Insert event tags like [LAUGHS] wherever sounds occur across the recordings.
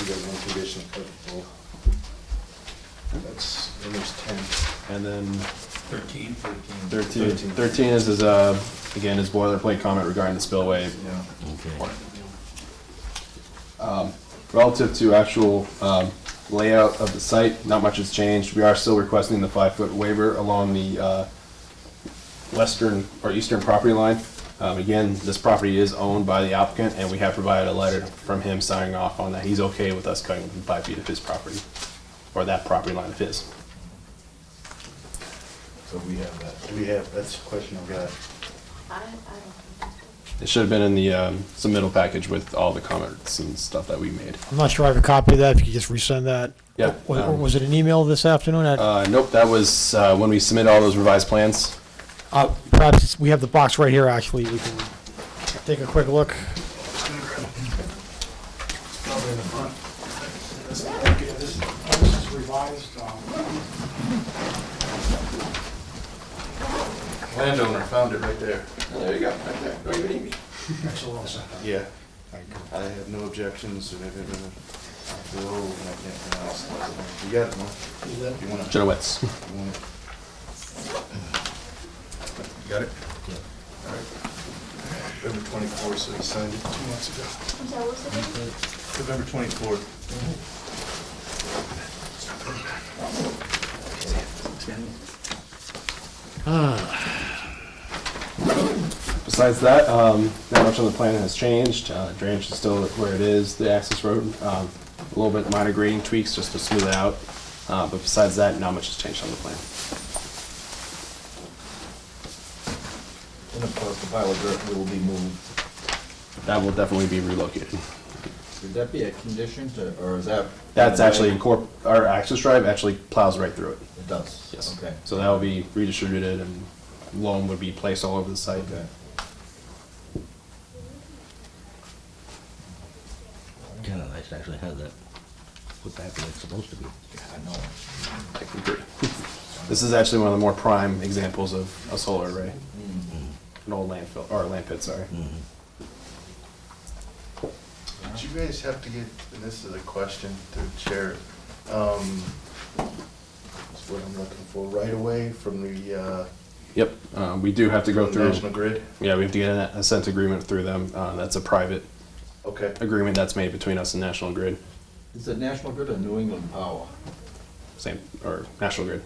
we got one condition applicable. That's, then there's ten. And then Thirteen? 13, Thirteen. Thirteen. 13 is his, uh, again, his boilerplate comment regarding the spillway. Yeah. Okay. Relative to actual um, layout of the site, not much has changed. We are still requesting the five-foot waiver along the uh, western or eastern property line. Um, Again, this property is owned by the applicant, and we have provided a letter from him signing off on that he's okay with us cutting within five feet of his property, or that property line of his. So we have that. Do we have, that's the question I've got. I, I don't think that's good. It should have been in the um, submittal package with all the comments and stuff that we made. I'm not sure I have a copy of that, if you could just resend that. Yeah, Or- or um, Was it an email this afternoon? I- Uh, nope, that was uh, when we submitted all those revised plans. uh, Perhaps, it's- we have the box right here, actually, we can take a quick look. Probably in the front. This- okay, This this is revised. um, Landowner found it right there. There you go, right there. Don't even need me. That's a little set. Yeah, I have no objections and everything. Whoa, I can't pronounce it. You got it, Mark? You want it? Jenowitz. You want it? You Got it? November twenty-fourth, so he signed it two months ago. I'm sorry, what's the date? November twenty-fourth. Besides that, um, not much on the plan has changed. Uh, drainage is still where it is, the access road. Um, a little bit minor grading tweaks just to smooth it out. Uh, but besides that, not much has changed on the plan. And of course, the pile of dirt will be moved. That will definitely be relocated. Would that be a condition to, or is that? That's actually incorp, our access drive actually plows right through it. It does? Yes. Okay. So that will be redistributed and loam would be placed all over the site. Okay. Kinda nice to actually have that put back where it's supposed to be. Yeah, I know. I can agree. This is actually one of the more prime examples of a solar array. An old landfill, or a land pit, sorry. Mm-hmm. Did you guys have to get, and this is a question to the chair, um, that's what I'm looking for, right away from the, uh, Yep, uh, we do have to go through. National Grid? Yeah, we have to get an assent agreement through them. Uh, that's a private Okay, agreement that's made between us and National Grid, Is it National Grid or New England Power? same, or National Grid.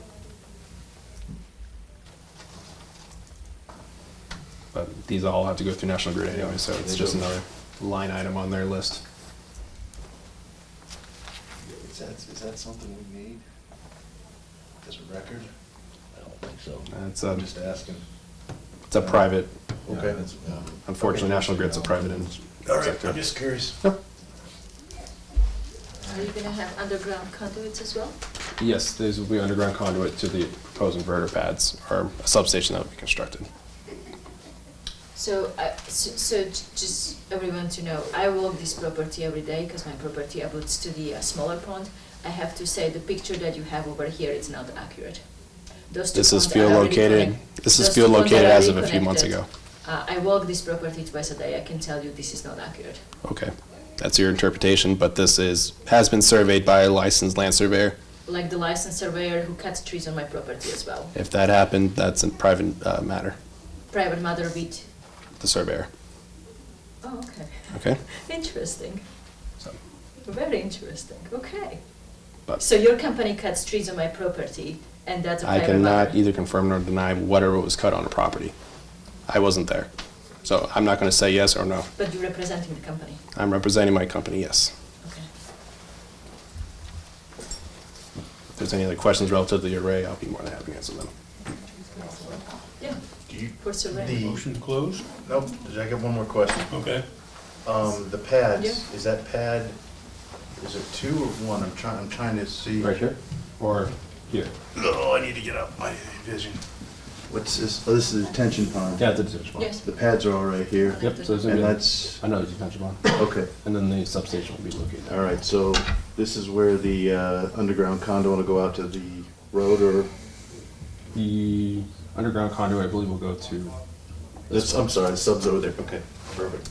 But these all have to go through National Grid anyway, so it's just another line item on their list. is that, is that something we need as a record? I don't think so. Uh, It's a, I'm just asking. it's a private, Yeah, Okay. that's- yeah. unfortunately, National Grid's a private in- All right, I'm just curious. Are you gonna have underground conduits as well? Yes, these will be underground conduit to the proposed inverter pads, or a substation that will be constructed. So, I- so, so j- just everyone to know, I walk this property every day because my property abuts to the uh, smaller pond. I have to say, the picture that you have over here is not accurate. Those two This is ponds are field already located, connect- this is those two field ponds are located as of a already few months ago. connected. Uh, I walk this property twice a day, I can tell you this is not accurate. Okay, that's your interpretation, but this is, has been surveyed by a licensed land surveyor. Like the licensed surveyor who cuts trees on my property as well. If that happened, that's a private uh, matter, Private matter with, the surveyor, oh, okay, okay? [LAUGHS] interesting. So, Very interesting. Okay. But So your company cuts trees on my property, and that's a I private cannot matter. either confirm nor deny whatever was cut on a property. I wasn't there, so I'm not gonna say yes or no. But you're representing the company. I'm representing my company, yes. Okay. If there's any other questions relative to the array, I'll be more than happy to answer them. Yeah. Do you, For surveying. the, Motion closed? nope, I got one more question. Okay. Um, the pads, is that pad, is it two or one? I'm trying, I'm trying to see. here? Or here? Oh, I need to get up my vision. What's this? Oh, this is a detention pond. it's a detention Yes. The pads are all right here. Yep, so there's And gonna be, that's, another detention pond, okay, and then the substation will be located. all right, so this is where the uh, underground condo will go out to the road or, The underground conduit, I believe, will go to that's, I'm sorry, the sub's over there, okay, perfect.